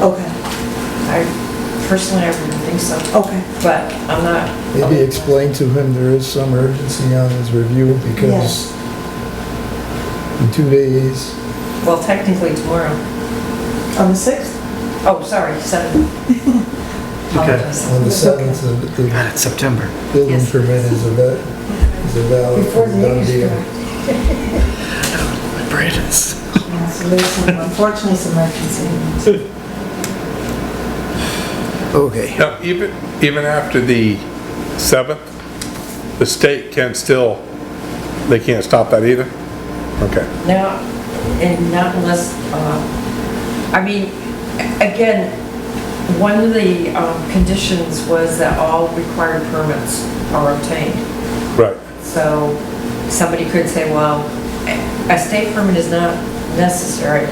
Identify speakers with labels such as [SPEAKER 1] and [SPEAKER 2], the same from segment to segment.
[SPEAKER 1] Okay,
[SPEAKER 2] I personally, I wouldn't think so,
[SPEAKER 1] okay,
[SPEAKER 2] but I'm not,
[SPEAKER 3] Maybe explain to him there is some urgency on his review because in two days,
[SPEAKER 2] well, technically tomorrow.
[SPEAKER 1] on the 6th?
[SPEAKER 2] Oh, sorry, seven. Apologize.
[SPEAKER 3] on the seventh, the
[SPEAKER 4] God, it's September.
[SPEAKER 3] building
[SPEAKER 2] Yes.
[SPEAKER 3] permit is a va- is a valid,
[SPEAKER 1] Before the
[SPEAKER 3] done
[SPEAKER 1] meeting's
[SPEAKER 3] deal.
[SPEAKER 1] over.
[SPEAKER 4] My brain is.
[SPEAKER 1] Yeah, so there's some, unfortunately, some emergency.
[SPEAKER 3] Okay.
[SPEAKER 5] Now, even, even after the 7th, the state can still, they can't stop that either? Okay.
[SPEAKER 2] Now, and not unless, uh, I mean, again, one of the um, conditions was that all required permits are obtained.
[SPEAKER 5] Right.
[SPEAKER 2] So somebody could say, well, a state permit is not necessary.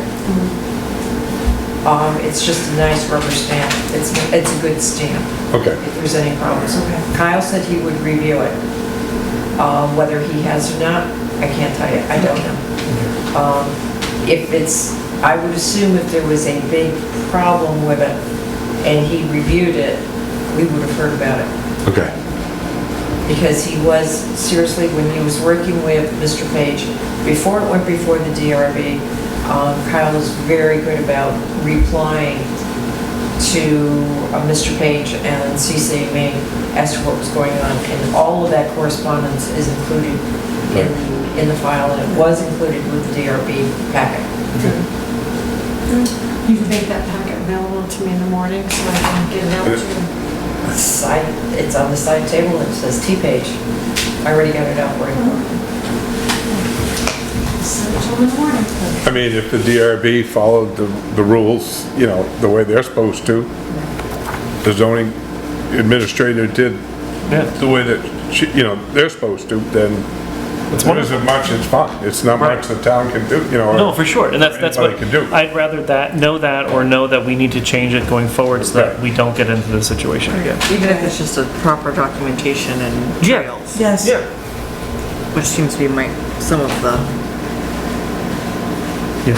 [SPEAKER 2] Um, It's just a nice rubber stamp. It's, it's a good stamp.
[SPEAKER 5] Okay.
[SPEAKER 2] if there's any problems.
[SPEAKER 1] Okay.
[SPEAKER 2] Kyle said he would review it. Um, Whether he has or not, I can't tell you, I don't know. Um, If it's, I would assume if there was a big problem with it and he reviewed it, we would have heard about it.
[SPEAKER 5] Okay.
[SPEAKER 2] Because he was, seriously, when he was working with Mr. Page, before it went before the DRB, um, Kyle was very good about replying to uh, Mr. Page and CC me as to what was going on, and all of that correspondence is included in, in the file, and it was included with the DRB packet.
[SPEAKER 6] You can make that packet available to me in the morning so I can get it out to you.
[SPEAKER 2] Side, it's on the side table, and it says T-Page. I already got it out for you.
[SPEAKER 6] Send it to them in the morning.
[SPEAKER 5] I mean, if the DRB followed the, the rules, you know, the way they're supposed to, the zoning administrator did the way that, she- you know, they're supposed to, then there isn't much, it's fine. It's not much the town can do, you know. or-
[SPEAKER 7] No, for sure, and that's, that's what,
[SPEAKER 5] Anybody can do.
[SPEAKER 7] I'd rather that, know that, or know that we need to change it going forward so that
[SPEAKER 5] Right.
[SPEAKER 7] we don't get into this situation again.
[SPEAKER 8] Even if it's just a proper documentation and
[SPEAKER 7] Yeah.
[SPEAKER 8] trails,
[SPEAKER 1] Yes.
[SPEAKER 8] which seems to be my, some of the
[SPEAKER 7] Yeah.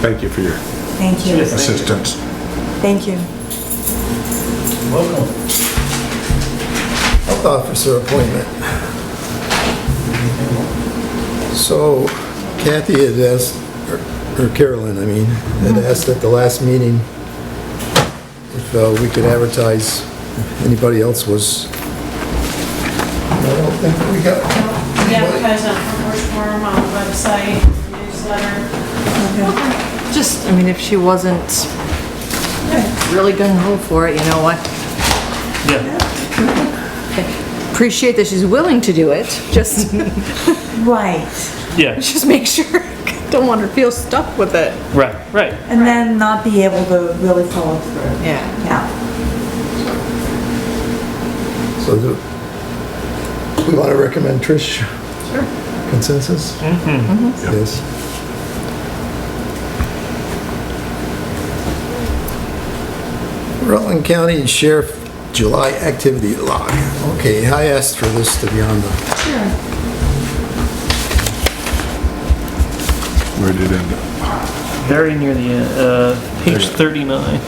[SPEAKER 5] Thank you for your
[SPEAKER 1] Thank you,
[SPEAKER 5] assistance.
[SPEAKER 1] thank you.
[SPEAKER 3] Health officer appointment. So Kathy had asked, or Carolyn, I mean, had
[SPEAKER 1] Mm-hmm.
[SPEAKER 3] asked at the last meeting if uh, we could advertise, if anybody else was. I don't think we got.
[SPEAKER 6] We advertise on First Forum on the website, newsletter.
[SPEAKER 8] Just, I mean, if she wasn't really gung ho for it, you know what?
[SPEAKER 7] Yeah,
[SPEAKER 8] Appreciate that she's willing to do it, just,
[SPEAKER 1] Right,
[SPEAKER 7] yeah,
[SPEAKER 8] just make sure, don't want her to feel stuck with it.
[SPEAKER 7] right, right.
[SPEAKER 1] and then not be able to really follow through.
[SPEAKER 8] Yeah.
[SPEAKER 1] Yeah,
[SPEAKER 3] So do, we want to recommend Trish? Sure. Consensus? Yes. Rutland County Sheriff July Activity Log. Okay, I asked for this to be on the,
[SPEAKER 5] Where did it end up?
[SPEAKER 7] Very near the, end, uh, page thirty-nine.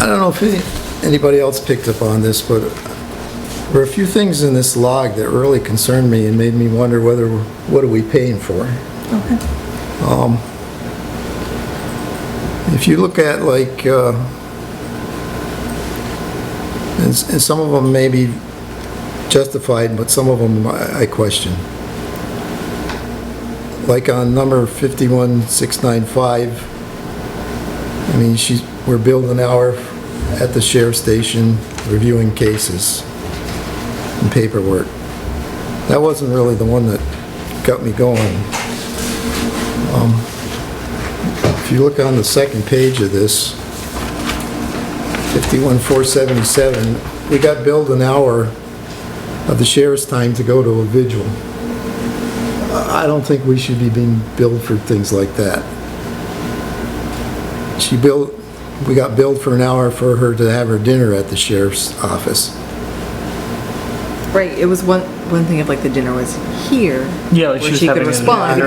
[SPEAKER 3] I don't know if any- anybody else picked up on this, but there were a few things in this log that really concerned me and made me wonder whether, what are we paying for? Um,
[SPEAKER 1] okay.
[SPEAKER 3] If you look at like, uh, and s- and some of them may be justified, but some of them I I question. Like on number 51695, I mean, she's, we're billed an hour at the sheriff's station reviewing cases and paperwork. That wasn't really the one that got me going. Um, If you look on the second page of this, 51477, we got billed an hour of the sheriff's time to go to a vigil. I I don't think we should be being billed for things like that. She billed, we got billed for an hour for her to have her dinner at the sheriff's office.
[SPEAKER 8] Right, it was one, one thing if like the dinner was here.
[SPEAKER 7] Yeah, like
[SPEAKER 8] where
[SPEAKER 7] she was
[SPEAKER 8] could
[SPEAKER 7] having a
[SPEAKER 8] respond.
[SPEAKER 7] dinner